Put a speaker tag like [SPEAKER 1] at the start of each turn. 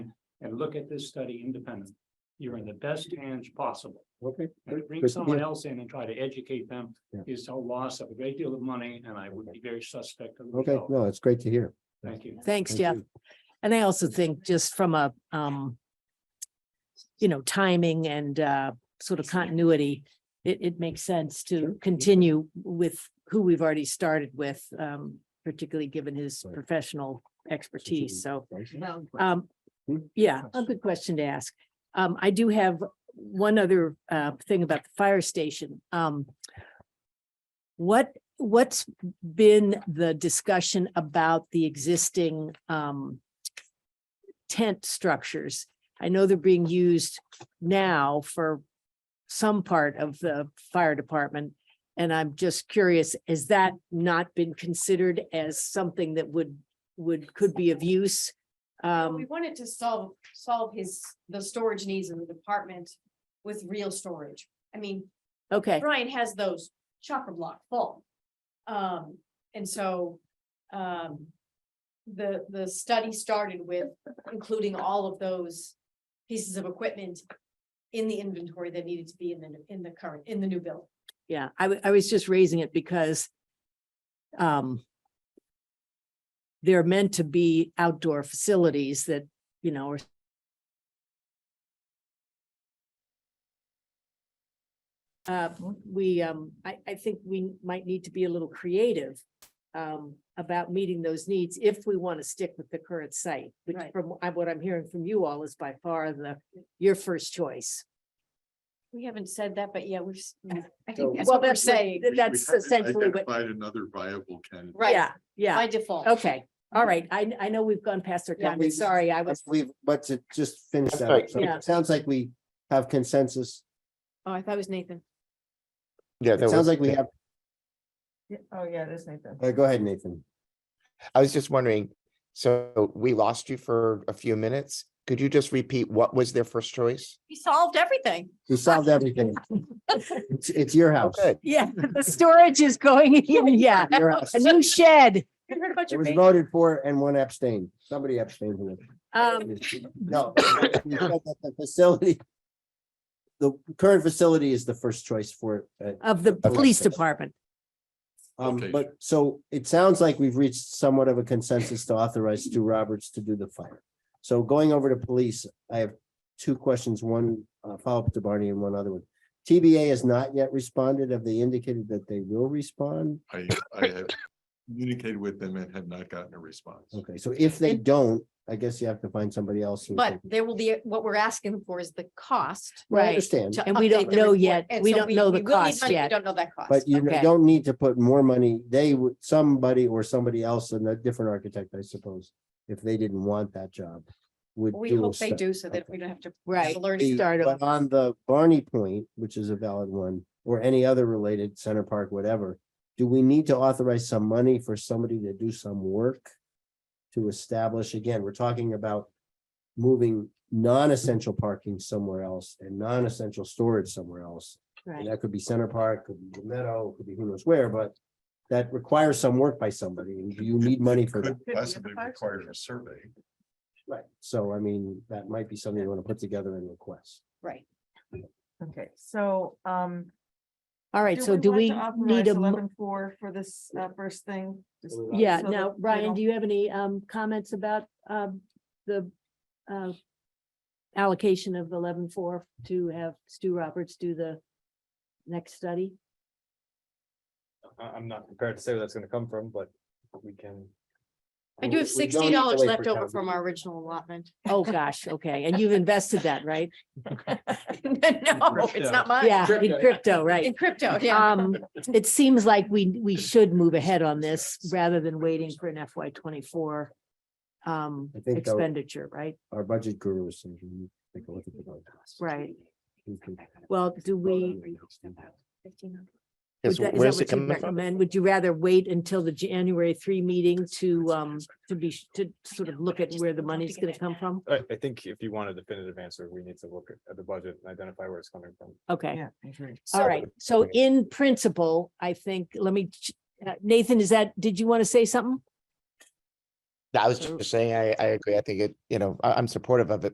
[SPEAKER 1] and look at this study independently. You're in the best hands possible.
[SPEAKER 2] Okay.
[SPEAKER 1] And Bring
[SPEAKER 2] Good.
[SPEAKER 1] someone else in and try to educate them
[SPEAKER 2] Yeah.
[SPEAKER 1] is a loss of a great deal of money, and I would be very suspect of. the
[SPEAKER 2] Okay,
[SPEAKER 1] result.
[SPEAKER 2] no, it's great to hear.
[SPEAKER 1] Thank you.
[SPEAKER 3] Thanks,
[SPEAKER 2] Thank
[SPEAKER 3] Jeff.
[SPEAKER 2] you.
[SPEAKER 3] And I also think just from a, um, you know, timing and, uh, sort of continuity, it, it makes sense to continue with who we've already started with, um, particularly given his
[SPEAKER 2] Right.
[SPEAKER 3] professional expertise. So,
[SPEAKER 2] Right.
[SPEAKER 3] um,
[SPEAKER 2] Hmm?
[SPEAKER 3] yeah, a good question to ask. Um, I do have one other, uh, thing about the fire station. Um, what, what's been the discussion about the existing, um, tent structures? I know they're being used now for some part of the fire department. And I'm just curious, has that not been considered as something that would, would, could be of use?
[SPEAKER 4] Well, We
[SPEAKER 3] Um,
[SPEAKER 4] wanted to solve, solve his, the storage needs in the department with real storage. I mean,
[SPEAKER 3] okay,
[SPEAKER 4] Brian has those chopper block full. Um, and so, um, the, the study started with including all of those pieces of equipment in the inventory that needed to be in the, in the current, in the new bill.
[SPEAKER 3] yeah, I, wa- I was just raising it because um, they're meant to be outdoor facilities that, you know, are uh, we, um, I, I think we might need to be a little creative um, about meeting those needs if we want to stick with the current site, which
[SPEAKER 4] Right.
[SPEAKER 3] from I- what I'm hearing from you all is by far the, your first choice.
[SPEAKER 4] We haven't said that, but yeah, we're, s- I
[SPEAKER 2] So-
[SPEAKER 4] think that's what we're saying,
[SPEAKER 5] We- we
[SPEAKER 3] That's
[SPEAKER 5] haven't
[SPEAKER 3] essentially what,
[SPEAKER 5] Identified another viable candidate.
[SPEAKER 4] right,
[SPEAKER 3] yeah, yeah.
[SPEAKER 4] by default.
[SPEAKER 3] Okay, all right. I, I know we've gone past our
[SPEAKER 4] Yeah.
[SPEAKER 3] time. I'm Sorry, I
[SPEAKER 2] I
[SPEAKER 3] was,
[SPEAKER 2] believe, but to just finish that, up,
[SPEAKER 6] right.
[SPEAKER 2] so
[SPEAKER 3] Yeah.
[SPEAKER 2] it sounds like we have consensus.
[SPEAKER 4] Oh, I thought it was Nathan.
[SPEAKER 6] Yeah.
[SPEAKER 2] It
[SPEAKER 6] that
[SPEAKER 2] sounds
[SPEAKER 6] was-
[SPEAKER 2] like we have,
[SPEAKER 7] Oh, yeah, that's Nathan.
[SPEAKER 2] uh, go ahead, Nathan.
[SPEAKER 6] I was just wondering, so we lost you for a few minutes. Could you just repeat what was their first choice?
[SPEAKER 4] We solved everything.
[SPEAKER 2] We solved everything. It's, it's your house.
[SPEAKER 6] Okay.
[SPEAKER 3] yeah, the storage is going in, yeah.
[SPEAKER 2] Your house.
[SPEAKER 3] A new shed.
[SPEAKER 4] You heard about
[SPEAKER 2] It
[SPEAKER 4] your
[SPEAKER 2] was
[SPEAKER 4] baby.
[SPEAKER 2] voted for and one abstained. Somebody abstained. from it.
[SPEAKER 3] Um,
[SPEAKER 2] No. we said that The facility. The current facility is the first choice for, uh,
[SPEAKER 3] of the police department.
[SPEAKER 2] um,
[SPEAKER 5] Location.
[SPEAKER 2] but so it sounds like we've reached somewhat of a consensus to authorize Stu Roberts to do the fire. So going over to police, I have two questions, one uh, follow-up to Barney and one other one. TBA has not yet responded. Have they indicated that they will respond?
[SPEAKER 5] I, I have communicated with them and have not gotten a response.
[SPEAKER 2] Okay, so if they don't, I guess you have to find somebody else. who
[SPEAKER 4] But
[SPEAKER 2] can-
[SPEAKER 4] there will be, what we're asking for is the cost.
[SPEAKER 2] Well, I
[SPEAKER 3] Right.
[SPEAKER 2] understand,
[SPEAKER 4] to
[SPEAKER 3] And we don't
[SPEAKER 4] update the
[SPEAKER 3] know
[SPEAKER 4] report.
[SPEAKER 3] yet.
[SPEAKER 4] And
[SPEAKER 3] We
[SPEAKER 4] so
[SPEAKER 3] don't know the
[SPEAKER 4] we will need
[SPEAKER 3] cost
[SPEAKER 4] money. We
[SPEAKER 3] yet.
[SPEAKER 4] Don't know that cost.
[SPEAKER 2] but you
[SPEAKER 3] okay.
[SPEAKER 2] don't need to put more money. They would, somebody or somebody else and a different architect, I suppose, if they didn't want that job, would.
[SPEAKER 4] We
[SPEAKER 2] do a
[SPEAKER 4] hope they
[SPEAKER 2] study.
[SPEAKER 4] do so that
[SPEAKER 2] Okay.
[SPEAKER 4] we don't have to.
[SPEAKER 3] Right.
[SPEAKER 4] Learn.
[SPEAKER 2] The-
[SPEAKER 3] start
[SPEAKER 2] But
[SPEAKER 3] over.
[SPEAKER 2] on the Barney point, which is a valid one, or any other related Center Park, whatever, do we need to authorize some money for somebody to do some work? To establish, again, we're talking about moving non-essential parking somewhere else and non-essential storage somewhere else. And
[SPEAKER 3] Right.
[SPEAKER 2] that could be Center Park, could be the Meadow, could be who knows where, but that requires some work by somebody. And do you need money for that?
[SPEAKER 5] Could possibly require a survey.
[SPEAKER 2] Right. So I mean, that might be something you want to put together and request.
[SPEAKER 4] Right.
[SPEAKER 7] Okay, so, um.
[SPEAKER 3] All right, so do
[SPEAKER 7] want
[SPEAKER 3] we
[SPEAKER 7] to
[SPEAKER 3] need
[SPEAKER 7] authorize
[SPEAKER 3] a, mo-
[SPEAKER 7] 11.4 for this, uh, first thing. Just
[SPEAKER 3] yeah,
[SPEAKER 7] so
[SPEAKER 3] now,
[SPEAKER 7] that we
[SPEAKER 3] Ryan,
[SPEAKER 7] don't-
[SPEAKER 3] do you have any um comments about um the uh allocation of eleven four to have Stu Roberts do the next study?
[SPEAKER 8] I, I'm not prepared to say where that's gonna come from, but we can.
[SPEAKER 4] I
[SPEAKER 2] We-
[SPEAKER 4] do have
[SPEAKER 2] we don't
[SPEAKER 4] sixty
[SPEAKER 2] need to
[SPEAKER 4] dollars
[SPEAKER 2] wait
[SPEAKER 4] left
[SPEAKER 2] for
[SPEAKER 4] over
[SPEAKER 2] town
[SPEAKER 4] from
[SPEAKER 2] meeting.
[SPEAKER 4] our original allotment.
[SPEAKER 3] Oh, gosh, okay. And you've invested that, right?
[SPEAKER 4] No, it's not mine.
[SPEAKER 3] Yeah, in crypto, right?
[SPEAKER 4] In crypto, yeah.
[SPEAKER 3] Um, it seems like we, we should move ahead on this rather than waiting for an FY twenty-four um,
[SPEAKER 2] I think that-
[SPEAKER 3] expenditure, right?
[SPEAKER 2] Our budget gurus. so we need to take a look at the budget.
[SPEAKER 3] Right.
[SPEAKER 2] We can-
[SPEAKER 3] Well, do we,
[SPEAKER 6] Yes,
[SPEAKER 3] would that- is
[SPEAKER 6] where's
[SPEAKER 3] that what
[SPEAKER 6] it
[SPEAKER 3] you
[SPEAKER 6] coming from?
[SPEAKER 3] recommend? Would you rather wait until the January three meeting to, um, to be, to sort of look at where the money's gonna come from?
[SPEAKER 8] I, I think if you want a definitive answer, we need to look at- at the budget and identify where it's coming from.
[SPEAKER 3] Okay,
[SPEAKER 7] Yeah, I agree.
[SPEAKER 3] all right. So in principle, I think, let me, ch- uh, Nathan, is that, did you want to say something?
[SPEAKER 6] I was just saying, I, I agree. I think it, you know, I, I'm supportive of it,